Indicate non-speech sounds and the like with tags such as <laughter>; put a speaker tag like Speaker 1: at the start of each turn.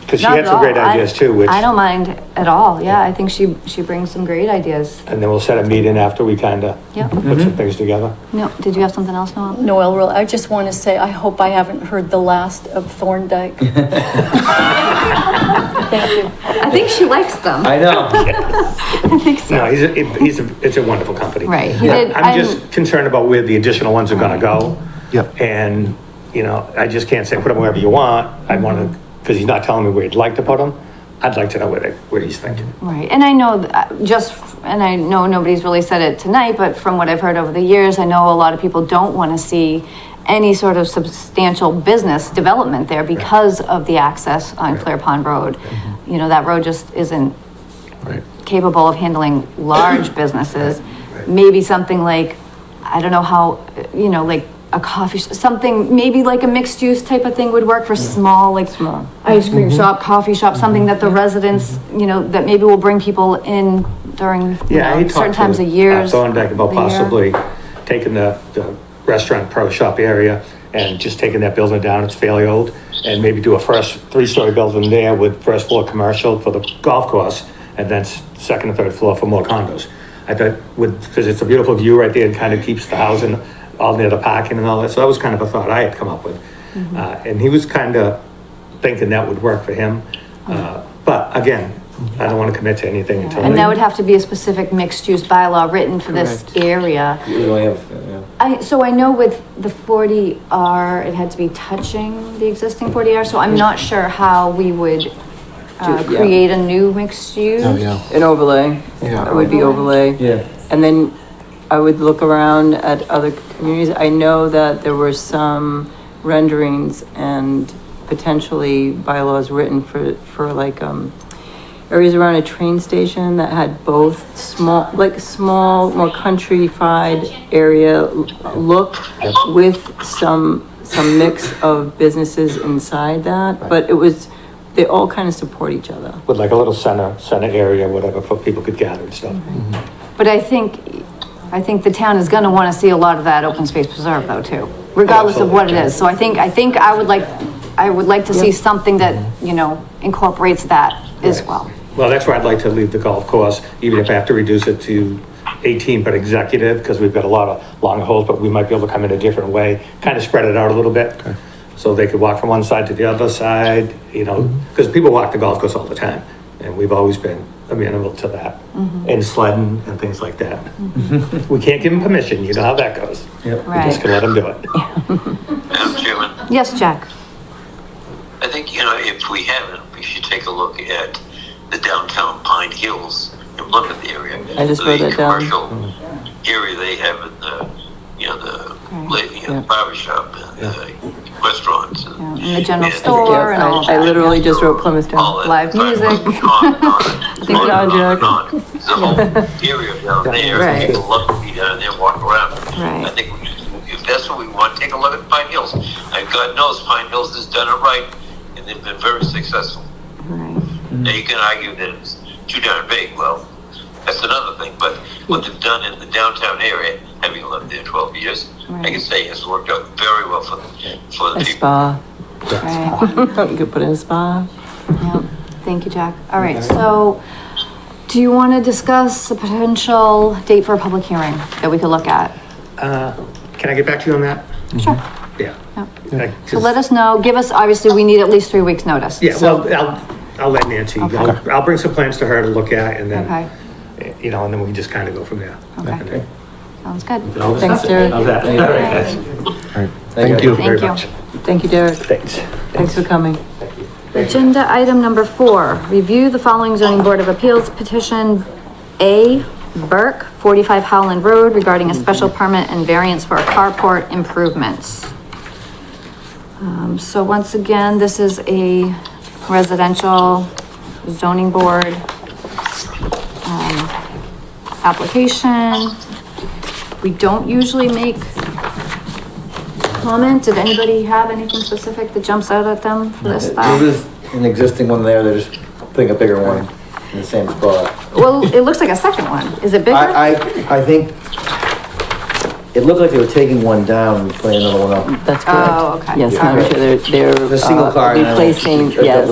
Speaker 1: Because she
Speaker 2: Not
Speaker 1: had
Speaker 2: at
Speaker 1: some great
Speaker 2: all. I-
Speaker 1: ideas too, which,
Speaker 2: I don't
Speaker 1: and
Speaker 2: mind at all, yeah, I think she, she brings some great ideas.
Speaker 1: then we'll set a meeting after we kind of
Speaker 2: Yep.
Speaker 1: put some things together.
Speaker 2: No, did you have something else, Noel?
Speaker 3: Noel, Roll- I just want to say, I hope I haven't heard the last of Thorndike. Thank you.
Speaker 2: I think she likes them.
Speaker 4: I know.
Speaker 2: <laughs> I think so.
Speaker 1: No, he's, a- he's, a- it's a wonderful company.
Speaker 2: Right, he
Speaker 1: Yeah,
Speaker 2: did- um,
Speaker 1: I'm
Speaker 2: I'm-
Speaker 1: just concerned about where the additional ones are gonna go.
Speaker 5: Yep.
Speaker 1: And, you know, I just can't say put them wherever you want. I want to, because he's not telling me where he'd like to put them. I'd like to know where they, where he's thinking.
Speaker 2: Right, and I know, th- uh, just, f- and I know nobody's really said it tonight, but from what I've heard over the years, I know a lot of people don't want to see any sort of substantial business development there because of the access on Clear Pond Road.
Speaker 1: Mm-hmm.
Speaker 2: You know, that road just isn't
Speaker 1: Right.
Speaker 2: capable of handling large businesses. Maybe something like, I don't know how, you know, like a coffee, sh- something, maybe like a mixed use type of thing would work for small, like small ice cream shop, coffee shop, something that the residents, you know, that maybe will bring people in during, you
Speaker 1: Yeah,
Speaker 2: know,
Speaker 1: he talked
Speaker 2: certain
Speaker 1: to
Speaker 2: times of
Speaker 1: uh,
Speaker 2: years.
Speaker 1: Thorndike about
Speaker 2: the year.
Speaker 1: possibly taking the, the restaurant pro shop area and just taking that building down, it's fairly old, and maybe do a first, three-story building there with first floor commercial for the golf course, and then s- second and third floor for more condos. I thought with, because it's a beautiful view right there, it kind of keeps the housing all near the parking and all that, so that was kind of a thought I had come up with.
Speaker 2: Mm-hmm.
Speaker 1: Uh, and he was kind of thinking that would work for him, uh, but again, I don't want to commit to anything until.
Speaker 2: And
Speaker 1: they-
Speaker 2: that would have to be a specific mixed use bylaw written for this area.
Speaker 4: We only have, yeah.
Speaker 2: I, so I know with the forty R, it had to be touching the existing forty R, so I'm not sure how we would uh,
Speaker 6: Do- yeah.
Speaker 2: create a new mixed use.
Speaker 5: Oh, yeah.
Speaker 6: An overlay.
Speaker 5: Yeah.
Speaker 6: It would be overlay.
Speaker 4: Yeah.
Speaker 6: And then I would look around at other communities. I know that there were some renderings and potentially bylaws written for, for like, um, areas around a train station that had both small, like small, more countrified area l- look with some, some mix of businesses inside that, but it was, they all kind of support each other.
Speaker 1: with like a little center, center area, whatever, for people could gather and stuff.
Speaker 2: But I think, I think the town is gonna wanna see a lot of that open space preserve though too, regardless of what it is. So I think, I think I would like, I would like to see something that, you know, incorporates that as well.
Speaker 1: Well, that's where I'd like to leave the golf course, even if I have to reduce it to eighteen, but executive, because we've got a lot of long holes, but we might be able to come in a different way, kind of spread it out a little bit. So they could walk from one side to the other side, you know, because people walk the golf course all the time, and we've always been amenable to that. And sledding and things like that. We can't give them permission, you know how that goes. We
Speaker 2: Right.
Speaker 1: just can let them do it.
Speaker 7: Madam Chairman,
Speaker 2: Yes, Jack?
Speaker 7: I think, you know, if we haven't, we should take a look at the downtown Pine Hills in Plymouth area.
Speaker 6: I just wrote
Speaker 7: The
Speaker 6: that down. Mm.
Speaker 7: Commercial area they have in the, you know, the,
Speaker 2: Right.
Speaker 7: la- you
Speaker 6: Yeah.
Speaker 7: know, barber shop and the restaurants and.
Speaker 2: Yeah, and the general
Speaker 7: and-
Speaker 2: store
Speaker 6: Yeah, and all I- I that. literally just wrote Plymouth down.
Speaker 7: All that.
Speaker 2: Live music.
Speaker 7: On and
Speaker 2: <laughs>
Speaker 7: on.
Speaker 6: Good job, Jack.
Speaker 7: There's a whole area down there,
Speaker 6: Right.
Speaker 7: people love to be down there, walk around.
Speaker 2: Right.
Speaker 7: I think we should- if that's what we want, take a look at Pine Hills. And God knows Pine Hills has done it right, and they've been very successful.
Speaker 2: Right.
Speaker 7: Now, you can argue that it's too darn big, well, that's another thing, but what they've done in the downtown area, having lived there twelve years, I
Speaker 2: Right.
Speaker 7: can say it's worked out very well for, for the
Speaker 6: A
Speaker 7: people.
Speaker 6: spa.
Speaker 2: Right.
Speaker 6: <laughs> You could put in a spa.
Speaker 2: Yep. Thank you, Jack. All right, so do you want to discuss a potential date for a public hearing that we could look at?
Speaker 1: Can I get back to you on that?
Speaker 2: Sure.
Speaker 1: Yeah. Like,
Speaker 2: So let us know, give us, obviously, we need at least three weeks' notice.
Speaker 1: Yeah,
Speaker 2: So-
Speaker 1: well, I'll, I'll let Nancy, I'll, I'll bring some plans to her to look at and
Speaker 2: Okay,
Speaker 1: then, eh, you know, and then we can just kind of go from there.
Speaker 2: okay, sounds good.
Speaker 6: Thanks, Derek.
Speaker 5: Thank you.
Speaker 2: Thank
Speaker 1: Very
Speaker 2: you.
Speaker 1: much.
Speaker 6: Thank you, Derek.
Speaker 1: Thanks.
Speaker 6: Thanks for coming.
Speaker 2: Agenda item number four, review the following zoning board of appeals petition. A, Burke, forty-five Howland Road regarding a special permit and variance for carport improvements. Um, so once again, this is a residential zoning board um, application. We don't usually make comment. Did anybody have anything specific that jumps out at them for this stuff?
Speaker 4: There's an existing one there, they're just putting a bigger one in the same spot.
Speaker 2: Well, it looks like a second one. Is it bigger?
Speaker 4: I, I, I think it looked like they were taking one down and putting another one up.
Speaker 6: That's correct.
Speaker 2: Oh, okay.
Speaker 6: Yes,
Speaker 2: All
Speaker 6: I'm
Speaker 2: right.
Speaker 6: sure they're, they're
Speaker 4: The single
Speaker 6: uh,
Speaker 4: car and I will-
Speaker 6: replacing, yes.